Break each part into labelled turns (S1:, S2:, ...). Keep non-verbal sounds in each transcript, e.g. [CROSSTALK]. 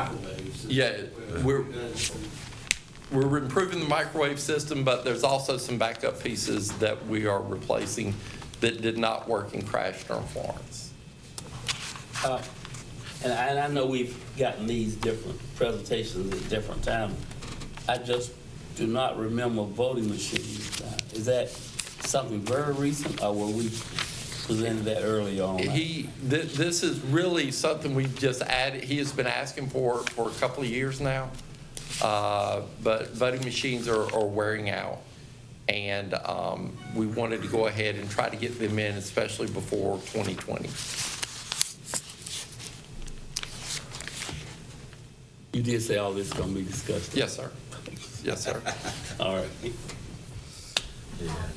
S1: microwaves.
S2: Yeah,
S1: Well,
S2: we're-
S1: that's-
S2: We're improving the microwave system, but there's also some backup pieces that we are replacing that did not work and crashed on Florence.
S3: Uh, And I, and I know we've gotten these different presentations at different times. I just do not remember voting machines. Uh, Is that something very recent, or were we presented that early on?
S2: He, thi- this is really something we just added, he has been asking for, for a couple of years now. Uh, But voting machines are, are wearing out. And um, we wanted to go ahead and try to get them in, especially before 2020.
S3: You did say all this is gonna be discussed.
S2: Yes, sir. Yes, sir.
S3: [LAUGHS] All right. Okay,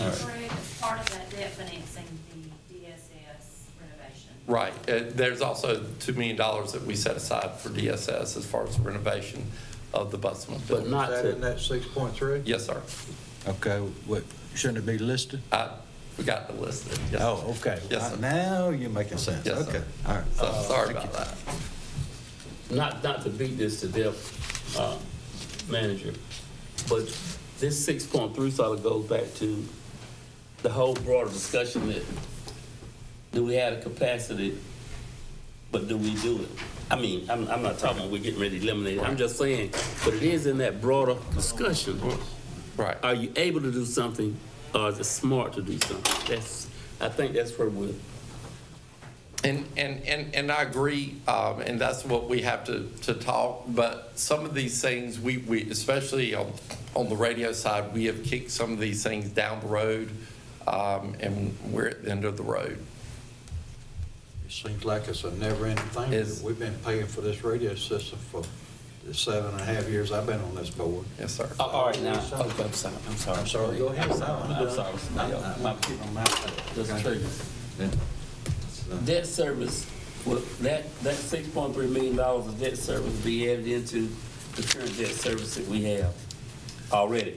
S3: all right.
S4: Greg, as part of that debt financing, the DSS renovation.
S2: Right. Uh, There's also $2 million that we set aside for DSS as far as renovation of the Busman
S3: But
S2: building.
S3: not
S5: Is that in
S3: to,
S5: that six point three?
S2: Yes, sir.
S5: Okay, what, shouldn't it be listed?
S2: I forgot to list it. Yes, sir.
S5: Oh, okay. uh,
S2: Yes, sir.
S5: Now you're making sense.
S2: Yes, sir.
S5: Okay, all right.
S2: So, Sorry about that.
S3: not, not to beat this to death, uh, manager, but this six point three sort of goes back to the whole broader discussion that, do we have the capacity, but do we do it? I mean, I'm, I'm not talking, we're getting ready to eliminate, it. I'm just saying, but it is in that broader discussion.
S2: Right.
S3: Are you able to do something, or is it smart to do something? That's, I think that's where we're,
S2: And, and, and, and I agree, um, and that's what we have to, to talk, but some of these things, we, we, especially on, on the radio side, we have kicked some of these things down the road, um, and we're at the end of the road.
S5: It seems like it's a never-ending thing.
S2: It's-
S5: We've been paying for this radio system for the seven and a half years I've been on this board.
S2: Yes, sir.
S3: Oh, all right, now, okay, I'm sorry, I'm sorry.
S5: I'm sorry, go ahead.
S3: I'm sorry, I'm sorry.
S5: I'm-
S3: Yeah,
S5: I'm-
S3: my-
S5: I'm out there.
S3: Just
S5: Okay.
S3: triggered.
S5: Then-
S3: Debt service, will that, that six point three million dollars of debt service be added into the current debt service that we have already?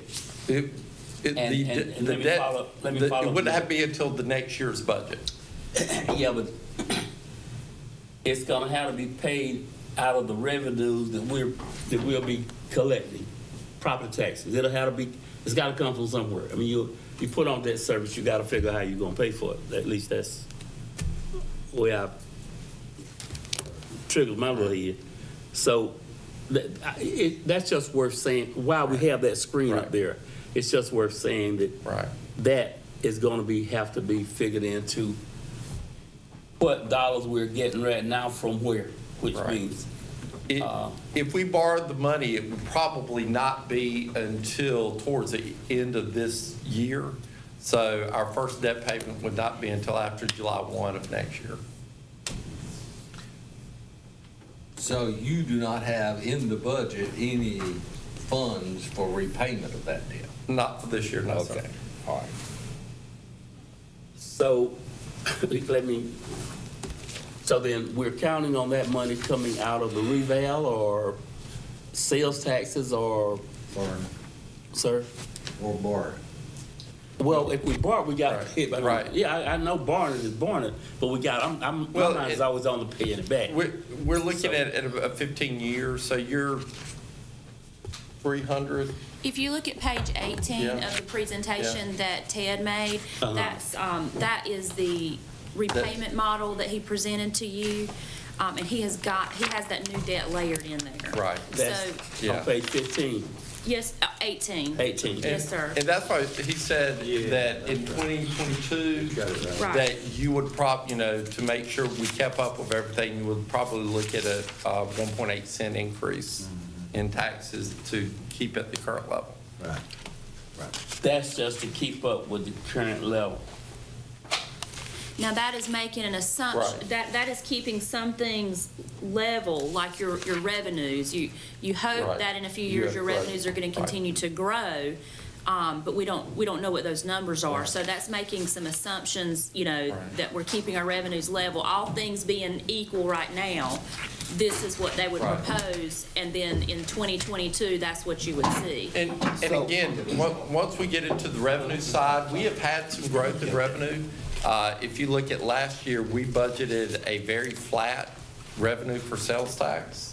S2: It, it,
S3: And-
S2: the,
S3: and- and
S2: the
S3: let me
S2: debt,
S3: follow- let me
S2: the-
S3: follow
S2: it wouldn't
S3: up.
S2: have to be until the next year's budget.
S3: Yeah, but it's gonna have to be paid out of the revenues that we're, that we'll be collecting, property taxes. It'll have to be, it's gotta come from somewhere. I mean, you, you put on debt service, you gotta figure out how you're gonna pay for it. At least that's where I triggered my little head. So that, I- it, that's just worth saying, while we have that screen up
S2: Right.
S3: there, it's just worth saying that
S2: Right.
S3: that is gonna be, have to be figured into what dollars we're getting right now from where, which
S2: Right.
S3: means,
S2: It-
S3: Uh.
S2: If we borrowed the money, it would probably not be until towards the end of this year. So our first debt payment would not be until after July 1 of next year.
S6: So you do not have in the budget any funds for repayment of that debt?
S2: Not for this year, no, sir.
S6: All right.
S3: so, [LAUGHS] let me, so then we're counting on that money coming out of the reval or sales taxes or,
S5: Born
S3: sir?
S5: Or borrowed.
S3: Well, if we borrow, we got to
S2: Right.
S3: pay it back.
S2: Right.
S3: Yeah, I, I know borrowing is borrowing, but we got, I'm, I'm, my
S2: Well,
S3: mind is
S2: it-
S3: always on the paying it back.
S2: We're, we're looking
S3: So-
S2: at, at a 15 years, so you're 300,
S4: If you look at page 18
S2: Yeah.
S4: of the presentation that Ted made, that's, um, that is the repayment model that he presented to you. Um, And he has got, he has that new debt layered in there.
S2: Right.
S4: So,
S3: That's
S2: Yeah.
S3: on page 15,
S4: yes, uh, 18.
S3: 18.
S4: Yes, sir.
S2: And that's why he said that in 2022,
S4: Right.
S2: that you would prob, you know, to make sure we kept up with everything, you would probably look at a uh, 1.8 cent increase in taxes to keep at the current level.
S5: Right, right.
S3: That's just to keep up with the current level.
S4: Now, that is making an assumption,
S2: Right.
S4: that, that is keeping some things level, like your, your revenues. You, you
S2: Right.
S4: hope that in a few
S2: You
S4: years,
S2: have
S4: your
S2: growth.
S4: revenues are gonna
S2: Right.
S4: continue to grow, um, but we don't, we don't know what those numbers are. So that's making some assumptions, you know,
S2: Right.
S4: that we're keeping our revenues level. All things being equal right now, this is what they would
S2: Right.
S4: propose, and then in twenty twenty-two, that's what you would see.
S2: And, and again, on- once we get into the revenue side, we have had some growth in revenue. Uh, If you look at last year, we budgeted a very flat revenue for sales tax.